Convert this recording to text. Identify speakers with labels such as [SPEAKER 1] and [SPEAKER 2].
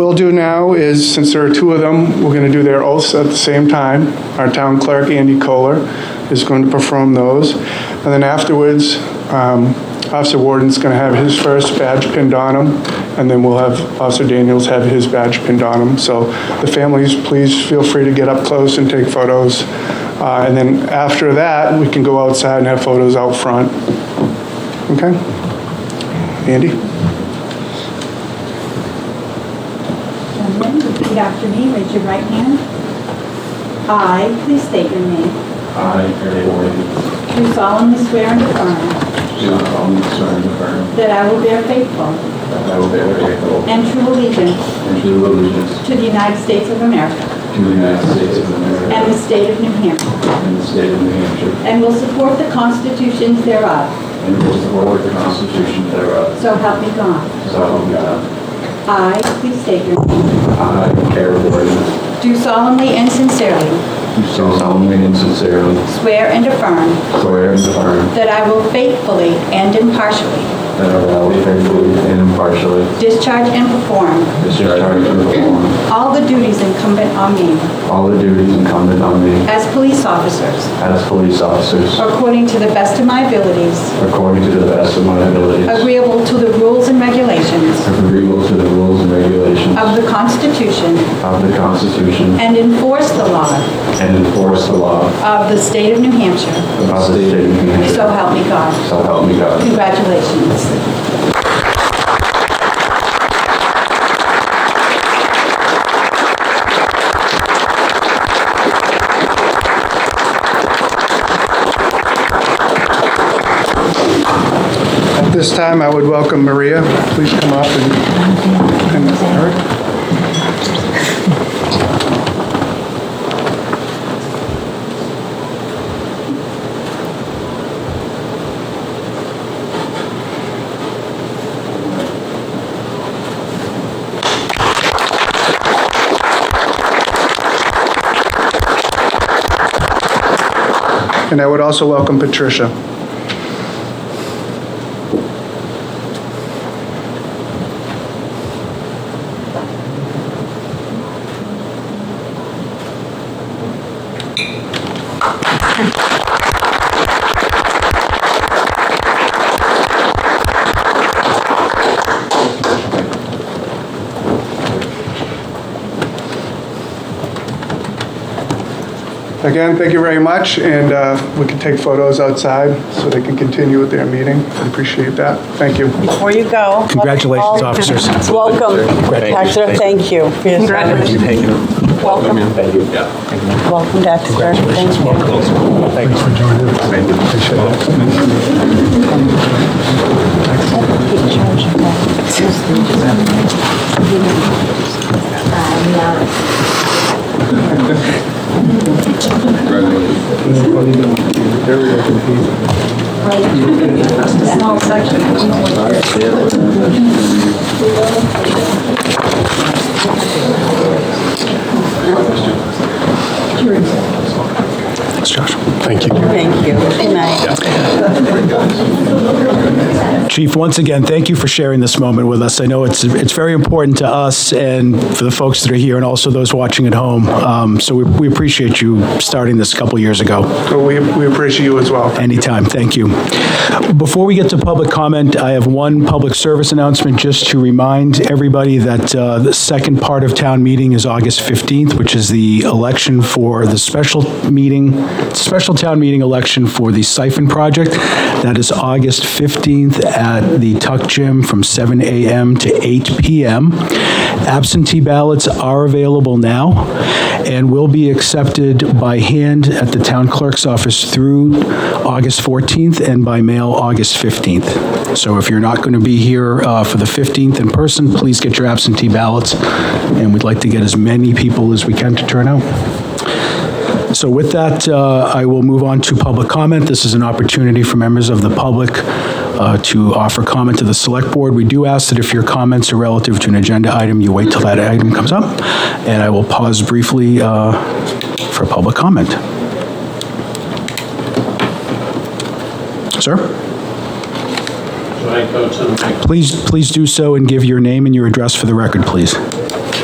[SPEAKER 1] We'll do now is, since there are two of them, we're going to do their oaths at the same time. Our town clerk, Andy Kohler, is going to perform those. And then afterwards, um, Officer Warden's going to have his first badge pinned on him, and then we'll have Officer Daniels have his badge pinned on him. So the families, please feel free to get up close and take photos. Uh, And then after that, we can go outside and have photos out front. Okay? Andy?
[SPEAKER 2] Gentlemen, repeat after me, raise your right hand. I, please state your name,
[SPEAKER 3] I, Harry Warren,
[SPEAKER 2] do solemnly swear and affirm
[SPEAKER 3] do solemnly swear and affirm
[SPEAKER 2] that I will bear faithful
[SPEAKER 3] that I will bear faithful
[SPEAKER 2] and true allegiance
[SPEAKER 3] and true allegiance
[SPEAKER 2] to the United States of America
[SPEAKER 3] to the United States of
[SPEAKER 2] and the
[SPEAKER 3] America
[SPEAKER 2] state of New Hampshire,
[SPEAKER 3] and the state of New Hampshire,
[SPEAKER 2] and will support the constitutions thereof,
[SPEAKER 3] and will support the Constitution thereof,
[SPEAKER 2] so help me God.
[SPEAKER 3] so help me God.
[SPEAKER 2] I, please state your name,
[SPEAKER 3] I, Harry Warren,
[SPEAKER 2] do solemnly and sincerely
[SPEAKER 3] do solemnly and sincerely
[SPEAKER 2] swear and affirm
[SPEAKER 3] swear and affirm
[SPEAKER 2] that I will faithfully and impartially
[SPEAKER 3] that I will faithfully and impartially
[SPEAKER 2] discharge and perform
[SPEAKER 3] discharge and perform
[SPEAKER 2] all the duties incumbent on me
[SPEAKER 3] all the duties incumbent on me
[SPEAKER 2] as police officers
[SPEAKER 3] as police officers,
[SPEAKER 2] According to the best of my abilities.
[SPEAKER 3] according to the best of my abilities,
[SPEAKER 2] Agreeable to the rules and regulations
[SPEAKER 3] agreeable to the rules and regulations
[SPEAKER 2] of the Constitution
[SPEAKER 3] Of the Constitution.
[SPEAKER 2] and enforce the law
[SPEAKER 3] And enforce the law
[SPEAKER 2] of the state of New Hampshire.
[SPEAKER 3] of the state of New Hampshire.
[SPEAKER 2] So help me God.
[SPEAKER 3] So help me God.
[SPEAKER 2] Congratulations.
[SPEAKER 1] At this time, I would welcome Maria. Please come up and and Eric. And I would also welcome Patricia. Again, thank you very much, and uh, we can take photos outside so they can continue with their meeting. I appreciate that. Thank you.
[SPEAKER 4] Before you go.
[SPEAKER 5] Congratulations,
[SPEAKER 4] all-
[SPEAKER 5] officers.
[SPEAKER 4] Welcome, Dexter, thank you. Congratulations. Welcome. Welcome, Dexter, thank you. Thank you. Good night.
[SPEAKER 5] Chief, once again, thank you for sharing this moment with us. I know it's, it's very important to us and for the folks that are here and also those watching at home. Um, So we we appreciate you starting this a couple years ago.
[SPEAKER 1] So we we appreciate you as well.
[SPEAKER 5] Anytime, thank you. Before we get to public comment, I have one public service announcement just to remind everybody that uh, the second part of town meeting is August 15th, which is the election for the special meeting, special town meeting election for the siphon project. That is August 15th at the Tuck Gym from 7 a.m. to 8 p.m. Absentee ballots are available now and will be accepted by hand at the town clerk's office through August 14th and by mail August 15th. So if you're not going to be here uh, for the 15th in person, please get your absentee ballots, and we'd like to get as many people as we can to turn out. So with that, uh, I will move on to public comment. This is an opportunity for members of the public uh, to offer comment to the Select Board. We do ask that if your comments are relative to an agenda item, you wait till that item comes up, and I will pause briefly uh, for public comment. Sir?
[SPEAKER 6] Should I go to the mic?
[SPEAKER 5] Please, please do so and give your name and your address for the record, please.